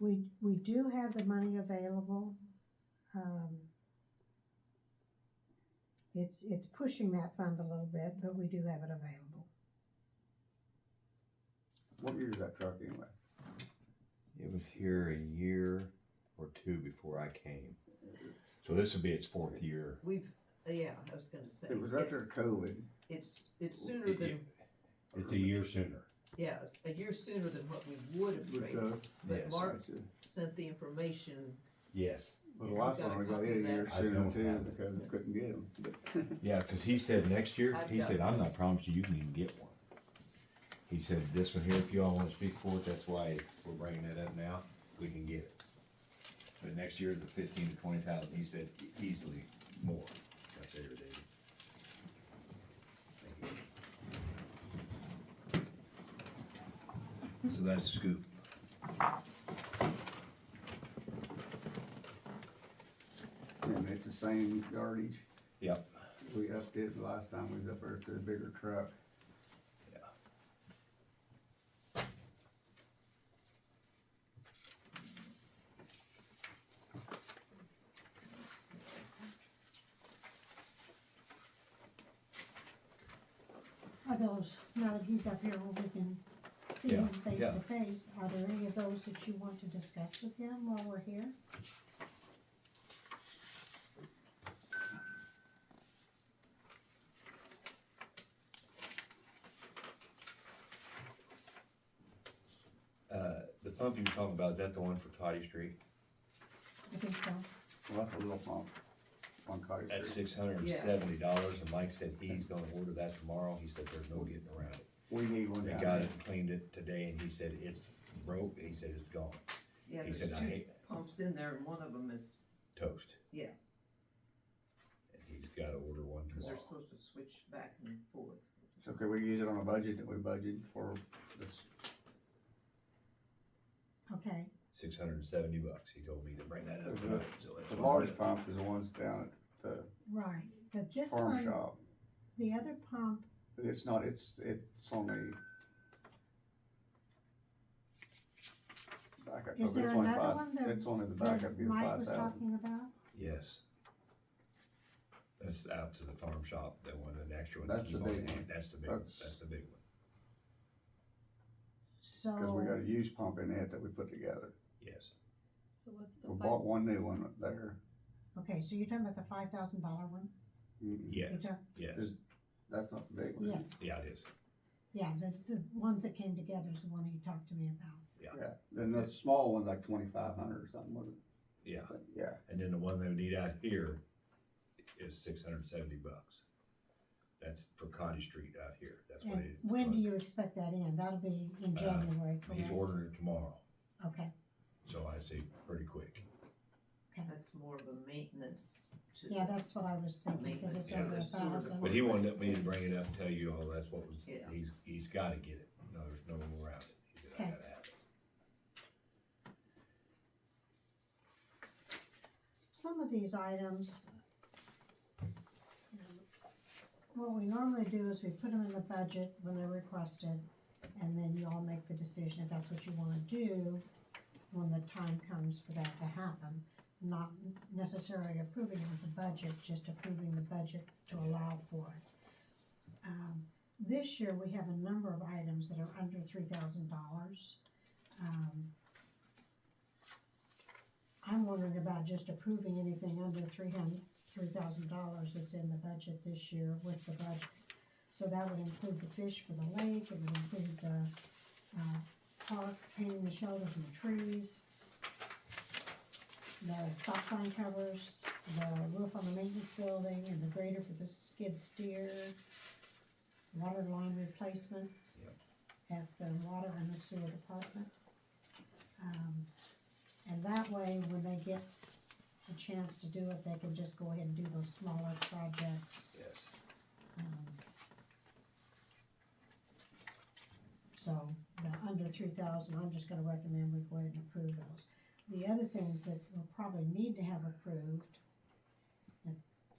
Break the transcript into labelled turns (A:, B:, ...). A: We, we do have the money available. Um, It's, it's pushing that fund a little bit, but we do have it available.
B: What year is that truck anyway?
C: It was here a year or two before I came. So this would be its fourth year.
D: We've, uh, yeah, I was gonna say,
B: It was
D: it's,
B: after COVID.
D: it's, it's sooner
C: It-
D: than,
C: It's a year sooner.
D: yeah, it's a year sooner than what we would have
B: It was,
D: traded.
B: uh,
D: But
C: Yes,
D: Mark
B: it's, uh,
D: sent the information,
C: Yes.
B: Well, the last
D: got a
B: one, we got it
D: copy
B: a
D: of that?
B: year
C: I
B: sooner
C: don't
B: too,
C: have it.
B: because we couldn't get them.
C: Yeah, because he said next year,
D: I've
C: he
D: got
C: said,
D: it.
C: I'm not promising you can even get one. He said, this one here, if y'all want to speak for it, that's why we're bringing it up now, we can get it. But next year, the fifteen to twenty thousand, he said e-, easily more. That's it, David. So that's the scoop.
B: And it's the same yardage.
C: Yep.
B: We upped it the last time we was up there to the bigger truck.
A: Are those, now that he's up here, where we can see
C: Yeah,
A: him face
C: yeah.
A: to face, are there any of those that you want to discuss with him while we're here?
C: Uh, the pump you were talking about, is that the one for Toddy Street?
A: I think so.
B: Well, that's a little pump on Cottage
C: That's
B: Street.
C: six hundred and seventy dollars, and Mike said he's gonna order that tomorrow, he said there's no getting around it.
B: We need one
C: They
B: down
C: got
B: there.
C: it, and cleaned it today, and he said it's broke, he said it's gone,
D: yeah,
C: He
D: there's
C: said, "I
D: two
C: hate-
D: pumps in there, and one of them is,
C: toast.
D: Yeah.
C: And he's gotta order one
D: cause they're
C: tomorrow.
D: supposed to switch back and forth.
B: So could we use it on a budget that we budgeted for this?
A: Okay,
C: Six hundred and seventy bucks, he told me to bring that up
B: Okay.
C: tonight, so that's.
B: The
C: what I'm
B: large
C: gonna
B: pump is the ones down at the
A: right, but this
B: farm
A: one,
B: shop.
A: the other pump,
B: It's not, it's, it's only. Backup,
A: Is
B: but it's
A: there
B: only
A: another
B: five,
A: one that-
B: it's only the backup
A: that
B: gear
A: Mike
B: five
A: was
B: thousand.
A: talking about,
C: do. Yes. That's out to the farm shop, that one, an extra one.
B: That's
C: Keep
B: the
C: on
B: big
C: hand.
B: one.
C: That's the big, one.
B: That's-
C: that's the big one,
A: so.
B: Cause we got a used pump in it that we put together.
C: yes.
E: So what's the
B: We
E: five,
B: bought one new one up there.
A: Okay, so you're talking about the five thousand dollar one?
B: Mm-mm.
C: Yes,
A: You're talk-
C: yes,
B: Is- That's not the big
A: Yeah,
B: one.
C: yeah, it is.
A: yeah, the, the ones that came together is the one you talked to me about.
B: Yeah, then the small one's like twenty-five hundred or something, wasn't it?
C: Yeah,
B: But yeah,
C: and then the one they would need out here is six hundred and seventy bucks. That's for Cotty Street out here, that's what
A: And
C: it.
A: when do you expect that in? That'll be in
C: Uh,
A: January,
C: He's
A: correct?
C: ordering it tomorrow,
A: Okay,
C: so I say pretty quick.
D: That's more of a maintenance to.
A: yeah, that's what I was thinking, cause it's
D: Yeah,
A: over a
D: that's sort of the-
A: thousand.
C: But he wanted me to bring it up and tell you all that's what was,
D: Yeah.
C: he's, he's gotta get it, no, there's no way around it. He said, I
A: Okay.
C: gotta have it.
A: Some of these items, what we normally do is we put them in the budget when they're requested, and then you all make the decision if that's what you wanna do when the time comes for that to happen. Not necessarily approving of the budget, just approving the budget to allow for it. Um, this year, we have a number of items that are under three thousand dollars. Um, I'm wondering about just approving anything under three hundred, three thousand dollars that's in the budget this year with the budget. So that would include the fish for the lake, it would include the, uh, park, painting the shoulders and the trees, the stop sign covers, the roof on the maintenance building, and the grader for the skid steer, water line replacements
C: Yep.
A: at the water and the sewer department. Um, and that way, when they get a chance to do it, they can just go ahead and do those smaller projects.
C: Yes.
A: um, So, the under three thousand, I'm just gonna recommend we go ahead and approve those. The other things that we'll probably need to have approved